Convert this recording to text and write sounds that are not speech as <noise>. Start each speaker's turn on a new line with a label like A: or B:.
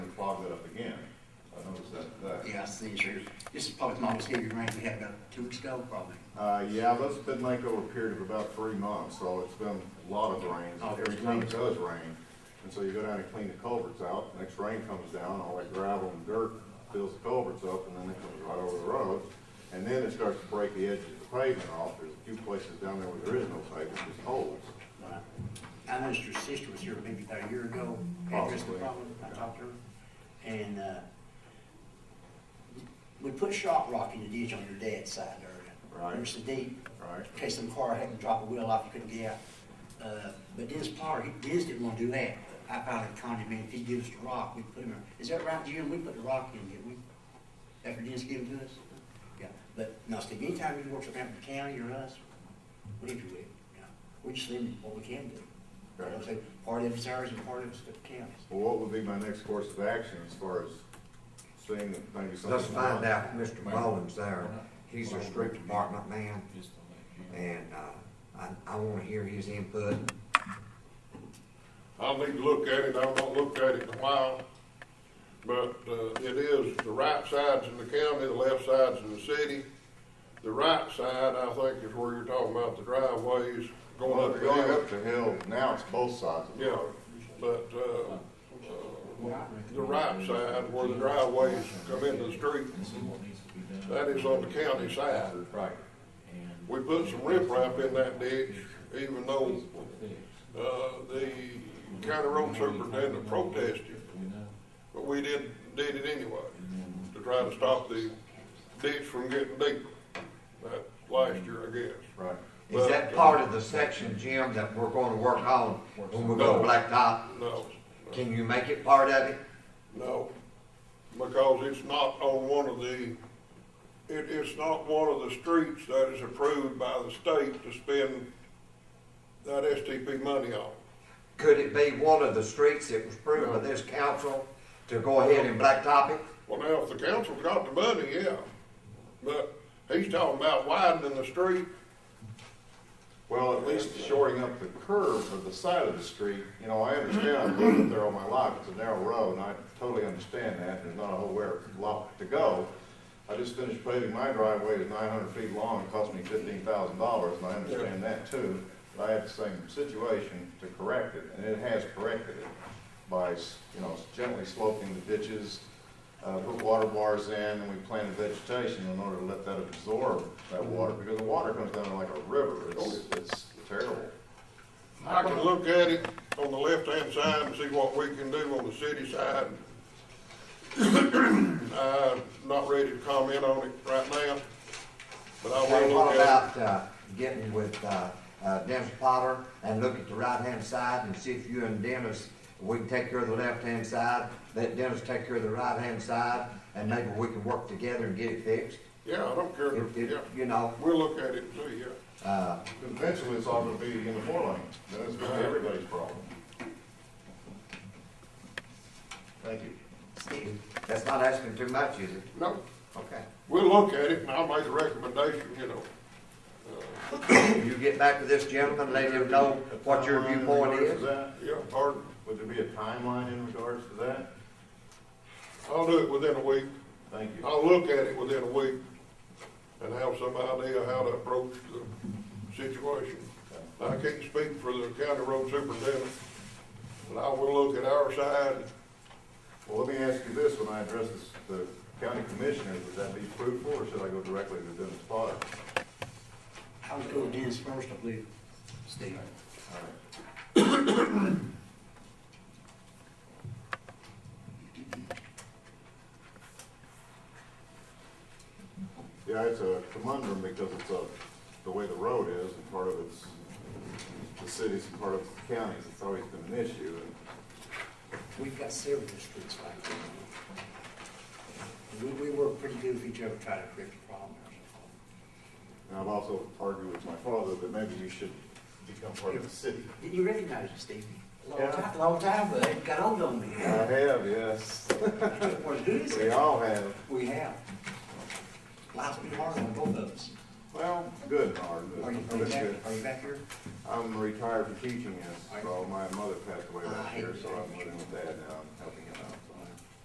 A: the insurance. This is probably the most heavy rain we had about two weeks ago, probably.
B: Uh, yeah, that's been like over a period of about three months, so it's been a lot of rain.
A: Oh, there's
B: Every time it
A: tons.
B: does rain, and so you go down and clean the culverts out, next rain comes down, all that gravel and dirt fills the culverts up, and then it comes right over the road. And then it starts to break the edges of the pavement off, there's a few places down there where there is no pavement, just holes.
A: Right. I noticed your sister was here maybe about a year ago, addressed the
B: Probably.
A: problem, I talked to her, and, uh, we put shot rock in the ditch on your dad's side there.
B: Right.
A: It was so deep,
B: Right.
A: in case some car had to drop a wheel off, you couldn't get out. Uh, but Dennis Potter, he, Dennis didn't wanna do that, but I finally conned him, in. if he gives us the rock, we put him, in." is that right, Jim, we put the rock in, didn't we? After Dennis gave it to us? Yeah, but, no, Steve, anytime you work for Hampton County or us, we do it, yeah, we just leave what we can do. You know, so part of it's ours and part of it's the county's.
B: Well, what would be my next course of action as far as seeing if maybe something?
C: Let's find out if Mr. Mullins there. He's a street department man, and, uh, I, I wanna hear his input.
D: I'll need to look at it, I've not looked at it in a while, but, uh, it is, the right side's in the county, the left side's in the city. The right side, I think, is where you're talking about the driveways going
B: Well,
D: up
B: if
D: the
B: you're
D: hill.
B: up the hill, now it's both sides of the
D: Yeah,
B: road.
D: but, uh, uh, the right side where the driveways come into the street, that is on the county side.
B: Right.
D: We put some riprap in that ditch, even though, uh, the county road superintendent protested. But we did, did it anyway, to try to stop the ditch from getting deeper, that last year, I guess.
B: Right.
C: Is that part of the section, Jim, that we're gonna work on when we go to Blacktop?
D: No,
C: Can you make it part of it?
D: no, because it's not on one of the, it, it's not one of the streets that is approved by the state to spend that STP money on.
C: Could it be one of the streets that was approved by this council to go ahead and blacktop it?
D: Well, now, if the council's got the money, yeah, but he's talking about widening the street,
B: Well, at least shoring up the curve of the side of the street, you know, I understand, I've lived up there all my life, it's a narrow road, and I totally understand that, there's not a whole where, lot to go. I just finished paving my driveway, it's nine hundred feet long, it cost me fifteen thousand dollars, and I understand that too. But I have the same situation to correct it, and it has corrected it by, you know, gently sloping the ditches, uh, put water bars in, and we planted vegetation in order to let that absorb that
C: Mm-hmm.
B: water, because the water comes down like a river,
C: Oh,
B: it's, it's terrible.
D: I can look at it on the left-hand side and see what we can do on the city side. <clears throat> I'm not ready to comment on it right now, but I
C: Okay,
D: will look
C: what
D: at
C: about, uh, getting with, uh, uh, Dennis Potter and look at the right-hand side and see if you and Dennis, we can take care of the left-hand side, let Dennis take care of the right-hand side, and maybe we can work together and get it fixed.
D: it. Yeah, I don't care,
C: If- if,
D: yeah,
C: you know,
D: we'll look at it and see, yeah.
C: uh,
B: Eventually, it's all gonna be in the four lane, then it's gonna be everybody's problem. Thank you.
C: Steve, that's not asking too much, is it?
D: No,
C: Okay.
D: we'll look at it and I'll make a recommendation, you know.
C: You get back to this gentleman, let him know what your
B: Timeline in
C: viewpoint
B: regards to
C: is.
B: that?
D: Yeah, or
B: Would there be a timeline in regards to that?
D: I'll do it within a week.
B: Thank you.
D: I'll look at it within a week and have some idea how to approach the situation. I can't speak for the county road superintendent, but I will look at our side.
B: Well, let me ask you this, when I address this, the county commissioners, would that be fruitful, or should I go directly to Dennis Potter?
A: I would go with Dennis first, I believe, Steve.
B: Yeah, it's a conundrum because it's a, the way the road is, and part of it's the cities and part of it's the counties, it's always been an issue, and
A: We've got several streets like that. And We, we work pretty good with each other, trying to correct the problem.
B: And I've also argued with my father that maybe you should become part of the city.
A: Did you recognize it, Steve? Long
B: Yeah.
A: time, long time, but it got old on me.
B: I have, yes. <laughs>
A: Well, who is
B: We
A: it?
B: all have.
A: We have. Life's been hard on both of us.
B: Well, good, Howard.
A: Are you, are you
B: That's
A: back,
B: good.
A: are you back here?
B: I'm retired from teaching, yes, so my mother passed away
A: Oh, I
B: last
A: hate
B: year, so
A: that.
B: I'm living with dad now, I'm helping him